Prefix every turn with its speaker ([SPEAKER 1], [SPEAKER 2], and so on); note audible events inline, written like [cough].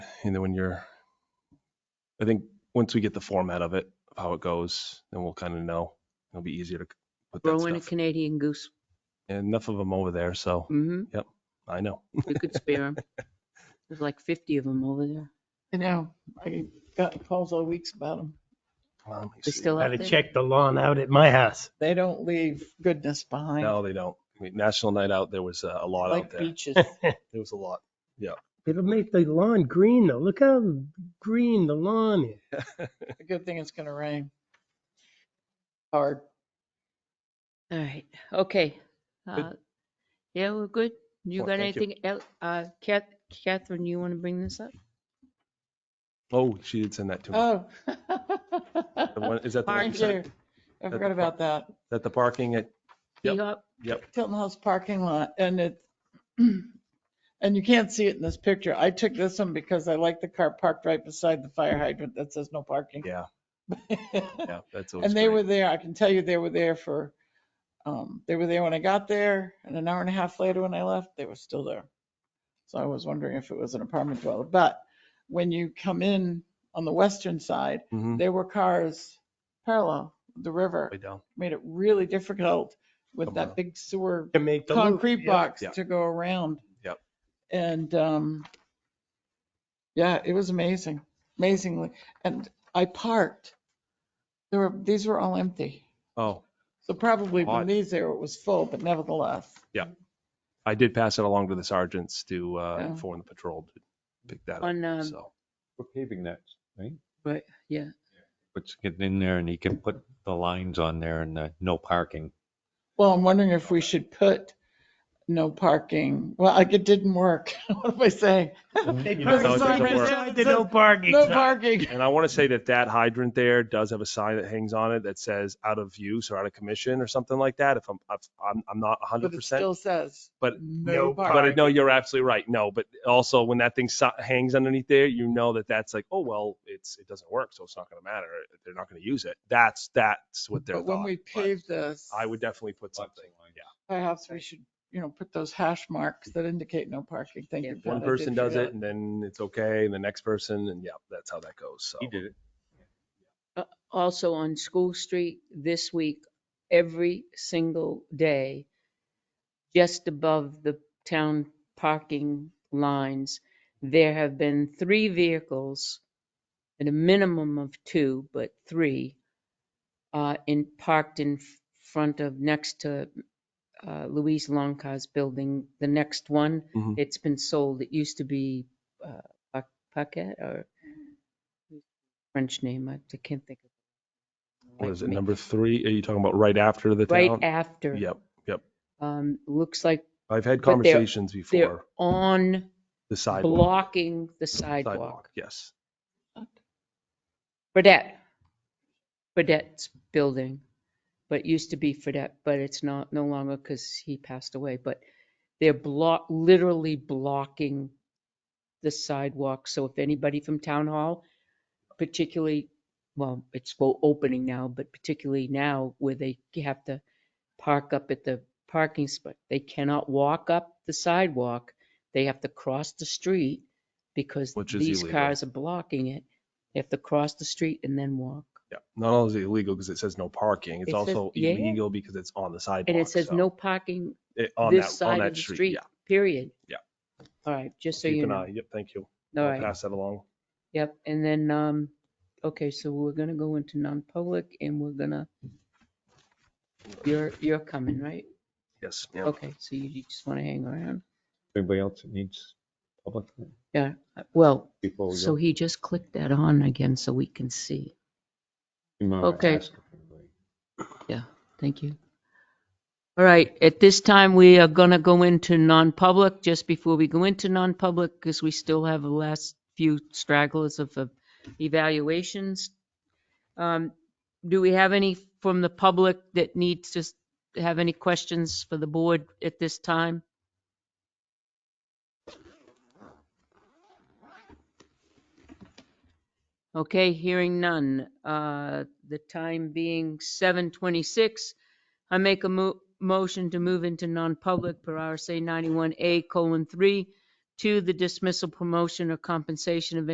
[SPEAKER 1] and then when you're, I think once we get the format of it, of how it goes, then we'll kind of know. It'll be easier to c- put that
[SPEAKER 2] Growing a
[SPEAKER 1] stuff.
[SPEAKER 2] Canadian goose.
[SPEAKER 1] Enough of them over there, so
[SPEAKER 3] Mm.
[SPEAKER 2] Mm-hmm.
[SPEAKER 1] I know.
[SPEAKER 2] We could
[SPEAKER 1] [laughs]
[SPEAKER 2] spare them. There's like 50 of them over there.
[SPEAKER 3] I know, I got calls all weeks about them.
[SPEAKER 1] Well, let me
[SPEAKER 2] They
[SPEAKER 1] see.
[SPEAKER 2] still out
[SPEAKER 4] Gotta
[SPEAKER 2] there?
[SPEAKER 4] check the lawn out at my house.
[SPEAKER 3] They don't leave goodness behind,
[SPEAKER 1] No, they don't. I mean, National Night Out, there was uh, a lot out
[SPEAKER 3] like
[SPEAKER 1] there. [laughs]
[SPEAKER 3] beaches.
[SPEAKER 1] There was a lot.
[SPEAKER 4] It'll make the lawn green though. Look how green the lawn is.
[SPEAKER 3] A good thing it's gonna rain. Hard.
[SPEAKER 2] All right, okay. Uh, Yeah, we're good. You
[SPEAKER 1] Well,
[SPEAKER 2] got
[SPEAKER 1] thank you.
[SPEAKER 2] anything else? Uh, Cath- Catherine, you want to bring this up?
[SPEAKER 1] Oh, she did send that to me.
[SPEAKER 3] Oh.
[SPEAKER 1] The
[SPEAKER 3] [laughs]
[SPEAKER 1] one- Is that the one
[SPEAKER 3] I
[SPEAKER 1] you sent?
[SPEAKER 3] do. I forgot about that.
[SPEAKER 1] That the parking at, Yep.
[SPEAKER 2] You got-
[SPEAKER 3] Tilton House parking lot and it, [clears throat] and you can't see it in this picture. I took this one because I like the car parked right beside the fire hydrant that says no parking.
[SPEAKER 1] yeah,
[SPEAKER 3] [laughs]
[SPEAKER 1] yeah, that's always
[SPEAKER 3] And they
[SPEAKER 1] great.
[SPEAKER 3] were there, I can tell you they were there for, um, they were there when I got there and an hour and a half later when I left, they were still there. So I was wondering if it was an apartment dweller, but when you come in on the western side,
[SPEAKER 1] Mhm.
[SPEAKER 3] there were cars parallel, with the river,
[SPEAKER 1] Way down.
[SPEAKER 3] made it really difficult with
[SPEAKER 1] Come
[SPEAKER 3] that
[SPEAKER 1] on.
[SPEAKER 3] big sewer
[SPEAKER 4] To make the loop.
[SPEAKER 3] concrete
[SPEAKER 4] Yeah.
[SPEAKER 3] box
[SPEAKER 1] Yep.
[SPEAKER 3] to go around.
[SPEAKER 1] Yep.
[SPEAKER 3] And, um, yeah, it was amazing, amazingly. And I parked. There were, these were all empty.
[SPEAKER 1] Oh,
[SPEAKER 3] So probably
[SPEAKER 1] Hot.
[SPEAKER 3] when these there, it was full, but nevertheless.
[SPEAKER 1] I did pass it along to the sergeants to, uh,
[SPEAKER 3] Oh.
[SPEAKER 1] inform the patrol to pick that
[SPEAKER 2] On,
[SPEAKER 1] up,
[SPEAKER 2] um,
[SPEAKER 1] so.
[SPEAKER 5] We're paving that, right?
[SPEAKER 2] Right, yeah.
[SPEAKER 5] Let's get in there and you can put the lines on there and uh, no parking.
[SPEAKER 3] Well, I'm wondering if we should put no parking. Well, like it didn't work. [laughs] What am I saying?
[SPEAKER 4] They
[SPEAKER 3] You
[SPEAKER 4] put
[SPEAKER 3] know,
[SPEAKER 4] a
[SPEAKER 1] it doesn't
[SPEAKER 4] sign right
[SPEAKER 1] work.
[SPEAKER 4] beside the no parking.
[SPEAKER 3] No
[SPEAKER 4] sign.
[SPEAKER 3] parking.
[SPEAKER 1] And I want to say that that hydrant there does have a sign that hangs on it that says out of use or out of commission or something like that. If I'm, if I'm, I'm not
[SPEAKER 3] But
[SPEAKER 1] hundred
[SPEAKER 3] it
[SPEAKER 1] percent.
[SPEAKER 3] still says.
[SPEAKER 1] but
[SPEAKER 3] no
[SPEAKER 1] But I
[SPEAKER 3] parking.
[SPEAKER 1] know you're absolutely right. No, but also when that thing si- hangs underneath there, you know that that's like, oh, well, it's, it doesn't work. So it's not going to matter. They're not going to use it. That's, that's what they're
[SPEAKER 3] But when we pave this.
[SPEAKER 1] I would definitely put something, yeah.
[SPEAKER 3] Perhaps we should, you know, put those hash marks that indicate no parking. Thank you.
[SPEAKER 2] Yeah.
[SPEAKER 3] Pat, I
[SPEAKER 1] One
[SPEAKER 3] did
[SPEAKER 1] person does
[SPEAKER 3] forget.
[SPEAKER 1] it and then it's okay. And the next person and yeah, that's how that goes. So.
[SPEAKER 5] He did it.
[SPEAKER 2] Also on School Street this week, every single day, just above the town parking lines, there have been three vehicles at a minimum of two, but three, uh, in, parked in front of, next to, uh, Louise Longcar's building. The next one,
[SPEAKER 1] Mhm.
[SPEAKER 2] it's been sold. It used to be, uh, Pa- Paquette or French name. I I can't think of.
[SPEAKER 1] What is it?
[SPEAKER 2] Like,
[SPEAKER 1] Number three? Are you talking about right after the
[SPEAKER 2] Right
[SPEAKER 1] town?
[SPEAKER 2] after.
[SPEAKER 1] Yep.
[SPEAKER 2] Um, looks like
[SPEAKER 1] I've had
[SPEAKER 2] But they're-
[SPEAKER 1] conversations
[SPEAKER 2] they're
[SPEAKER 1] before
[SPEAKER 2] on
[SPEAKER 1] the sidewalk.
[SPEAKER 2] blocking the sidewalk.
[SPEAKER 1] Yes.
[SPEAKER 2] Fredette. Fredette's building, but it used to be Fredette, but it's not, no longer because he passed away, but they're block, literally blocking the sidewalk. So if anybody from town hall, particularly, well, it's well opening now, but particularly now where they have to park up at the parking spot, they cannot walk up the sidewalk. They have to cross the street because
[SPEAKER 1] Which is
[SPEAKER 2] these
[SPEAKER 1] illegal.
[SPEAKER 2] cars are blocking it. They have to cross the street and then walk.
[SPEAKER 1] Yeah. Not only is it illegal because it says no parking, it's
[SPEAKER 2] It says-
[SPEAKER 1] also
[SPEAKER 2] yeah.
[SPEAKER 1] illegal because it's on the sidewalk.
[SPEAKER 2] And it says
[SPEAKER 1] so
[SPEAKER 2] no parking
[SPEAKER 1] it- on
[SPEAKER 2] this
[SPEAKER 1] that- on
[SPEAKER 2] side
[SPEAKER 1] that
[SPEAKER 2] of the street,
[SPEAKER 1] Yeah.
[SPEAKER 2] period.
[SPEAKER 1] Yeah.
[SPEAKER 2] All right, just so
[SPEAKER 1] Keep
[SPEAKER 2] you
[SPEAKER 1] an
[SPEAKER 2] know.
[SPEAKER 1] eye. Yep. Thank you.
[SPEAKER 2] All
[SPEAKER 1] I'll
[SPEAKER 2] right,
[SPEAKER 1] Pass that along.
[SPEAKER 2] yep. And then, um, okay, so we're gonna go into non-public and we're gonna, you're, you're coming, right?
[SPEAKER 1] Yes. ma'am.
[SPEAKER 2] Okay, so you you just wanna hang around?
[SPEAKER 5] Anybody else that needs public
[SPEAKER 2] Yeah, uh, well,
[SPEAKER 5] before
[SPEAKER 1] Oh,
[SPEAKER 5] we go?
[SPEAKER 2] so he just clicked that on again so we can see.
[SPEAKER 5] You might wanna
[SPEAKER 2] okay.
[SPEAKER 5] ask if anybody-
[SPEAKER 2] Thank you. All right, at this time, we are going to go into non-public. Just before we go into non-public, because we still have the last few stragglers of uh, evaluations. Um, Do we have any from the public that needs to s- have any questions for the board at this time? Okay, hearing none. Uh, The time being 7:26, I make a mo- motion to move into non-public per RSA 91A colon 3 to the dismissal, promotion, or compensation of